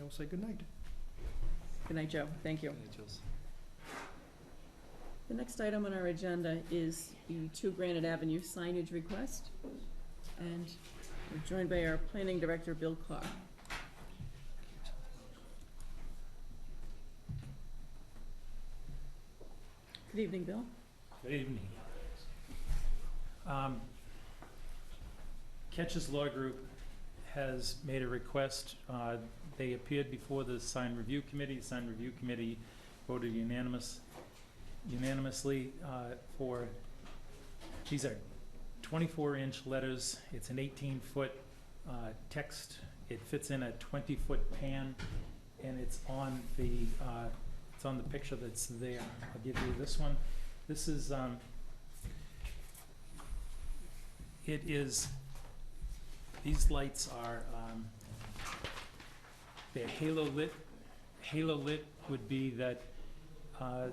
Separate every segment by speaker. Speaker 1: will say goodnight.
Speaker 2: Good night, Joe. Thank you. The next item on our agenda is the Two Granite Avenue signage request. And we're joined by our planning director, Bill Clark. Good evening, Bill.
Speaker 3: Good evening. Um, Ketch's Law Group has made a request. Uh, They appeared before the sign review committee. The sign review committee voted unanimous, unanimously uh, for, these are 24-inch letters. It's an 18-foot text. It fits in a 20-foot pan, and it's on the, uh, it's on the picture that's there. I'll give you this one. This is, um, it is, these lights are, um, they're halo lit. Halo lit would be that, uh,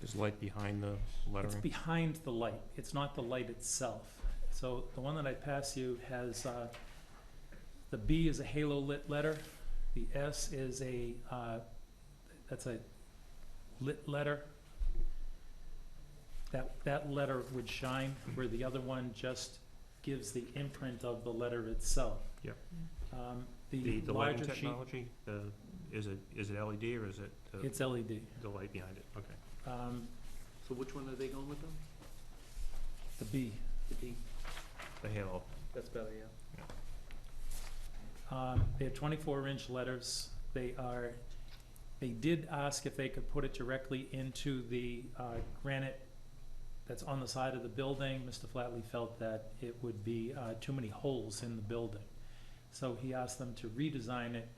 Speaker 4: There's light behind the
Speaker 3: it's
Speaker 4: lettering.
Speaker 3: behind the light, it's not the light itself. So the one that I pass you has, uh, the B is a halo lit letter, the S is a, uh, that's a lit letter. That, that letter would shine, where the other one just gives the imprint of the letter itself.
Speaker 4: Yep.
Speaker 3: Um,
Speaker 4: The,
Speaker 3: The
Speaker 4: the lighting
Speaker 3: larger sheet,
Speaker 4: technology, the, is it, is it LED or is it the,
Speaker 3: it's LED.
Speaker 4: the light behind it? Okay.
Speaker 3: Um,
Speaker 1: So which one are they going with them?
Speaker 3: The B.
Speaker 1: The D?
Speaker 4: The halo.
Speaker 1: That's better, yeah.
Speaker 3: Um, They're twenty-four inch letters. They are, they did ask if they could put it directly into the uh, granite that's on the side of the building. Mr. Flatley felt that it would be uh, too many holes in the building. So he asked them to redesign it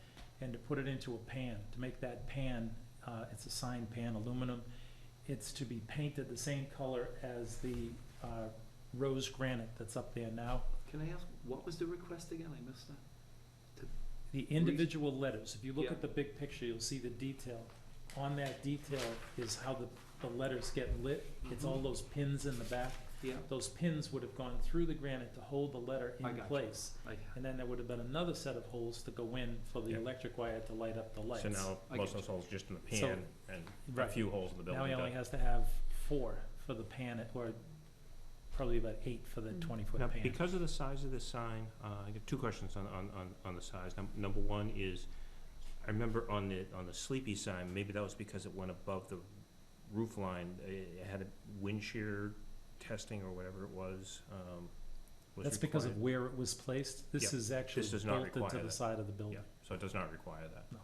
Speaker 3: and to put it into a pan, to make that pan, uh, it's a sign pan, aluminum. It's to be painted the same color as the uh, rose granite that's up there now.
Speaker 1: Can I ask, what was the request again? I missed that.
Speaker 3: The individual letters, if you look
Speaker 1: Yeah.
Speaker 3: at the big picture, you'll see the detail. On that detail is how the, the letters get lit. It's
Speaker 4: Mm-hmm.
Speaker 3: all
Speaker 1: Mhm.
Speaker 3: those pins in the back.
Speaker 1: Yeah,
Speaker 3: Those pins would have gone through the granite to hold the letter
Speaker 1: I
Speaker 3: in
Speaker 1: gotcha.
Speaker 3: place.
Speaker 1: I,
Speaker 3: And then there would have been another set of holes to go in for the
Speaker 4: Yeah.
Speaker 3: electric wire to light up the lights.
Speaker 4: So now,
Speaker 1: I
Speaker 4: most
Speaker 1: get
Speaker 4: of those holes just in the
Speaker 3: So-
Speaker 4: pan and a
Speaker 3: Right.
Speaker 4: few holes in the
Speaker 3: Now he
Speaker 4: building.
Speaker 3: only
Speaker 4: to-
Speaker 3: has to have four for the pan, or probably about eight for the
Speaker 2: Mm.
Speaker 3: twenty-foot
Speaker 4: Now,
Speaker 3: pan.
Speaker 4: because of the size of this sign, uh, I got two questions on, on, on, on the size. Num- Number one is, I remember on the, on the sleepy sign, maybe that was because it went above the roof line. It it had a wind shear testing or whatever it was, um, was
Speaker 3: That's because
Speaker 4: required.
Speaker 3: of where it was placed. This
Speaker 4: Yeah.
Speaker 3: is actually
Speaker 4: does not
Speaker 3: bolted to
Speaker 4: require
Speaker 3: the
Speaker 4: that.
Speaker 3: side of the building.
Speaker 4: Yeah, so it does not require that.
Speaker 3: No.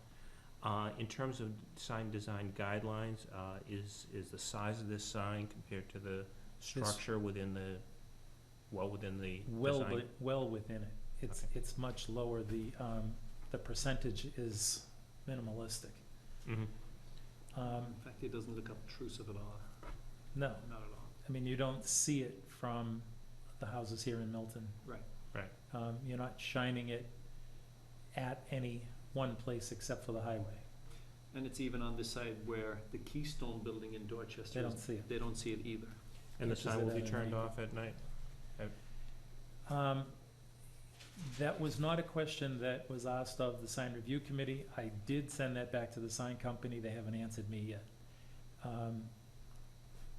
Speaker 4: Uh, in terms of sign design guidelines, uh, is, is the size of this sign compared to the structure within the, well, within the
Speaker 3: Well,
Speaker 4: design?
Speaker 3: wi- well within it. It's, it's much lower. The, um, the percentage is minimalistic.
Speaker 4: Mhm.
Speaker 3: Um,
Speaker 1: in fact, it doesn't look obtrusive at all,
Speaker 3: no,
Speaker 1: not at all.
Speaker 3: I mean, you don't see it from the houses here in Milton.
Speaker 1: Right.
Speaker 4: Right.
Speaker 3: Um, you're not shining it at any one place except for the highway.
Speaker 1: And it's even on the side where the Keystone Building in
Speaker 3: They
Speaker 1: Dorchester,
Speaker 3: don't
Speaker 1: is-
Speaker 3: see it.
Speaker 1: they don't see it either.
Speaker 4: And the
Speaker 3: Which is
Speaker 4: sign will be
Speaker 3: another
Speaker 4: turned
Speaker 3: name.
Speaker 4: off at night?
Speaker 3: Um, that was not a question that was asked of the sign review committee. I did send that back to the sign company. They haven't answered me yet. Um,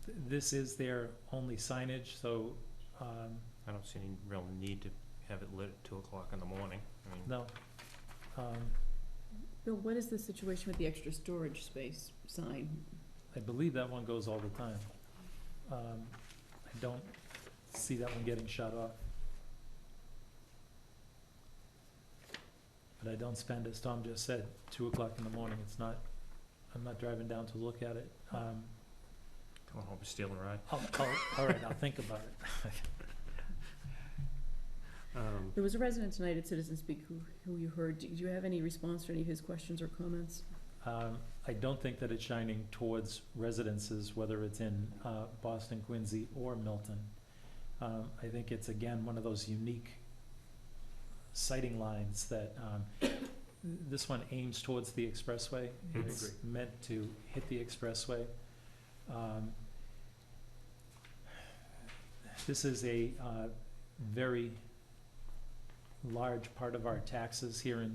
Speaker 3: th- this is their only signage, so, um,
Speaker 4: I don't see any real need to have it lit at two o'clock in the morning. I mean,
Speaker 3: no. Um,
Speaker 2: Bill, what is the situation with the extra storage space sign?
Speaker 3: I believe that one goes all the time. Um, I don't see that one getting shut off. But I don't spend, as Tom just said, two o'clock in the morning, it's not, I'm not driving down to look at it. Um,
Speaker 4: Coming home, stealing a ride.
Speaker 3: I'll, I'll, all right, I'll think about it.
Speaker 4: Um,
Speaker 2: There was a resident tonight at Citizen Speak who, who you heard. Did you have any response to any of his questions or comments?
Speaker 3: Um, I don't think that it's shining towards residences, whether it's in, uh, Boston, Quincy, or Milton. Um, I think it's again, one of those unique sighting lines that, um, this one aims towards the expressway.
Speaker 4: I
Speaker 3: It's meant to hit the expressway. Um, This is a, uh, very large part of our taxes here in